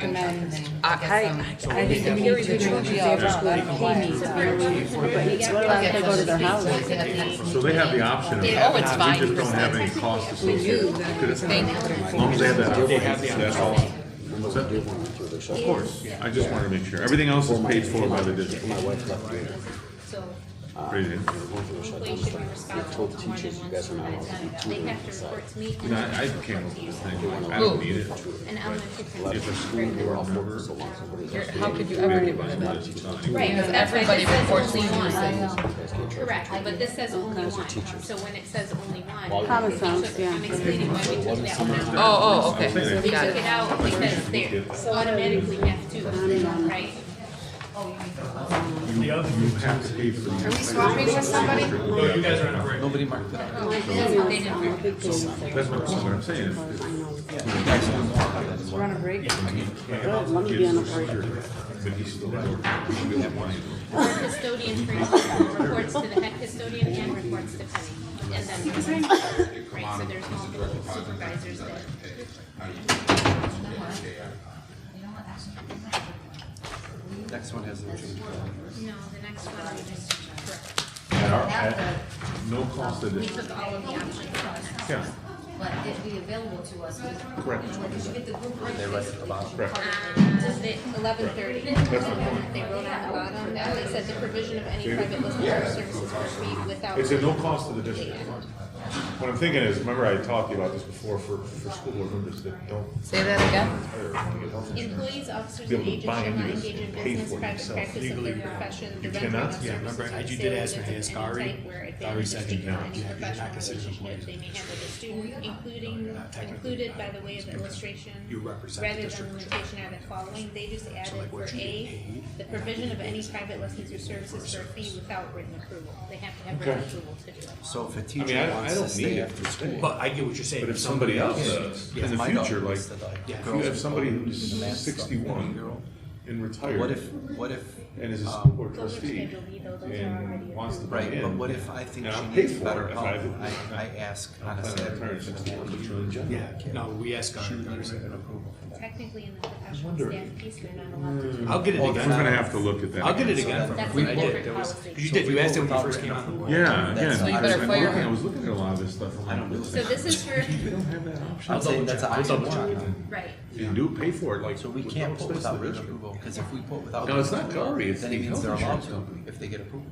recommend. I, I think the peer review should be all around, I don't know why. it's peer reviewed, but it's allowed to go to their houses. So they have the option of, we Oh, it's fine. just don't have any cost associated with it. As long as they have that option, that's all. What's that? Of course, I just wanted to make sure. Everything else is paid for by the district. My wife left me. So Crazy. One for the shut down employees should be responsible told for more teachers, you than one guys are not allowed to do it student at a time. They have to inside. report to me. No, I I came up with this thing, I don't need it. An elementary principal. If a school board member. How could you ever get rid of that? Right, Because that's why everybody this says reports only to you. one. Correct. Correct, but this says only one, so when it says only one. Common we took- sense, yeah. I'm explaining why we took that one out. Oh, oh, okay. We took Got it. it out because they automatically have to, right? You you have to pay for. Are we swapping with somebody? No, you guys are on a break. Nobody marked that. up. That's what they didn't. That's what that's what I'm saying. If- if- We're on a break. Let me be on But he's still. We have one. Our Custodian principal reports to the head custodian and reports to Penny. And then, right, so there's multiple supervisors that. Next one has no change. No, the next one, we just, correct. At our, at no cost to the We district. took all of the options out of that, Yeah, but it'd be available to us. Correct. Did you get the group right? correct. Does it eleven thirty? They wrote on the bottom, that they said the provision of any private listed services for free without. It's at no cost to the district. What I'm thinking is, remember I talked to you about this before for, for school board members that don't Say that again? hire or want to get health insurance. Employees, officers, Be and able to agents buy shall into not this engage in and pay business, for it private yourself. practice of Legally, their you're not. profession, the You rendering cannot. of Yeah, services remember, or I- you did sales ask me, of ask any Ari. type where advantage Ari is said you taken in cannot. You- any you're not professional considered an relationship they may have with a student, including, included by the way of illustration, uh, You represent the rather than district. limitation of the following, they just added like, for what you get A, paid the provision of any private lessons or services for a fee without written approval, they have to have written approval to do it. So if I mean, I a teacher don't- I wants don't to need stay it. after school. But I get what you're saying. But if somebody else does, in the my future, daughter like, used to, like, if you girls have with somebody balloons who's and that stuff, young sixty-one girl. and What retired if, what if, and is a school um, board Those are trustee Schedule B, though, those are already and wants to buy right, in. but what if I think and she I'll pay needs for better it if help? I do. I, I ask on a plan on retiring at Saturday. 61, but you're in general. Yeah, no, we ask our. She would never get an approval. technically in the professional staff piece, they're not allowed to do. I'll get it Well, We're again. gonna have to look at that. I'll get it again. again from That's when a I different did. There was, policy. because you did, you asked it when you first came on. Yeah, again. So you I was better like fire- looking- I was looking at a lot of this stuff, I'm like, I don't do it. So this is for, we don't have that option. I'm saying that's an I'll double item check. one. right, You do pay for it, like. So we with can't no put expense to without the written district. approval, because if we put without. No, it's written not approval, Curry, it's Then it the means they're health allowed insurance to, if they get approval.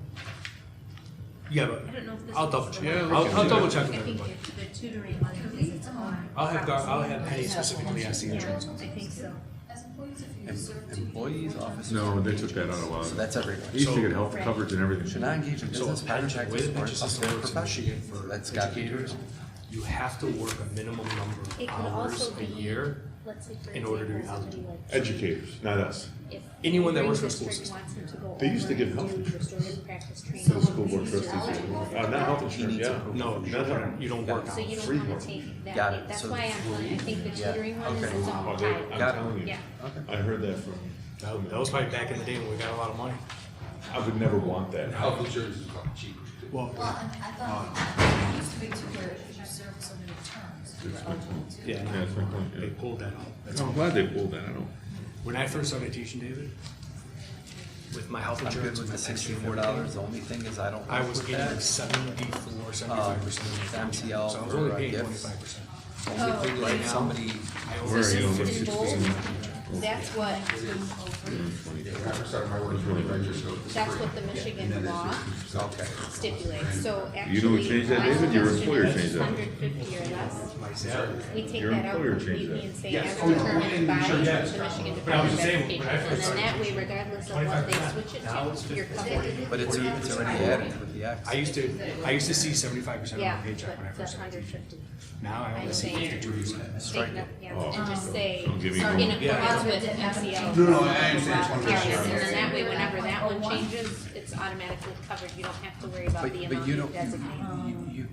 Yeah, I but don't know if this. I'll is double the check. one. Yeah, we I'll, can I'll do double that. check I with think everybody. if the tutoring one is its own. I'll have, Gar- I'll have Penny specifically ask the Yeah, I insurance. think so. As employees, if you Em- serve two Employees, people, officers. No, and they took that agents. out a So lot. that's everyone. He used to get health coverage and Should everything. not engage in business, So, private practice, with or pensions other and profession. for That's got to be. educators, you have to work a minimum number of It could hours also a be, year. let's say for in order to be example, somebody eligible. like- Educators, not us. if Anyone that the works for school district system. wants them to go They used to over give and health do insurance restorative practice To the training. school board trustees. Uh, not health insurance, yeah. needs approval. No, you don't, you don't work So you hours. don't wanna take Got that, it. that's So why I'm, telling- I think the Yeah. tutoring one is Okay. its Oh, own they- I'm type. Got it. Oh, telling you, Yeah. I heard that from. That that was probably back in the day when we got a lot of money. I would never want that. Health insurance is not cheap. Well, Well, and I thought, it used to be to where you serve so many terms. you were eligible to. yeah, Yeah, that's my point, they yeah. pulled that out. That's I'm glad they pulled that, I don't. When I first started teaching, David, with my health I'm good insurance, with with the my pension, sixty-four and everything, dollars, Uh, the only thing is I don't. I work was with getting that. seventy-four, seventy-five percent. So MTL I was for, only uh, paying gifts. twenty-five percent. Oh, The Only thing Right like now- I somebody, Where always, are you? I'm This is in bold. 16. That's what, I started my work in twenty years ago. that's what the Michigan law Okay. stipulates, so actually. You don't change that, my David? Your suggestion employer is changed that. 150 or less. my salary, We take Your that out employer changed completely that. and say Yes. average determined by the Yes. Michigan But I was Department of just saying, Education. when I And first then that started way, regardless of what they switch it Now it's to, you're covered. but it's, it's already added with the X. I used to, I used to see seventy-five percent of Yeah, my paycheck when but I the first started hundred teaching. fifty. Now I only see saying- fifty-two percent. Take that, yeah, and just say, Don't give me in more. accordance with MCL. No, no, I understand. It's one Yeah, percent. And then that way, whenever that one changes, it's automatically covered, you don't have to worry about Oh, But, the but amount you you don't, designate. you, you,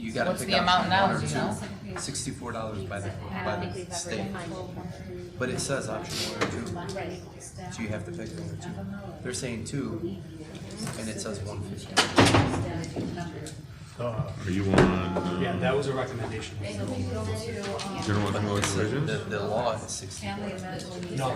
you gotta What's pick the out amount now, one or do you know? two. Sixty-four dollars by the, I don't by think we've the ever state. defined But it says option one or it, two. right? So you have to pick one or two. They're saying two, and it says one fifty. Uh, Are you on, uh, Yeah, that was a recommendation. general economic The, provisions? the law is sixty-four. No,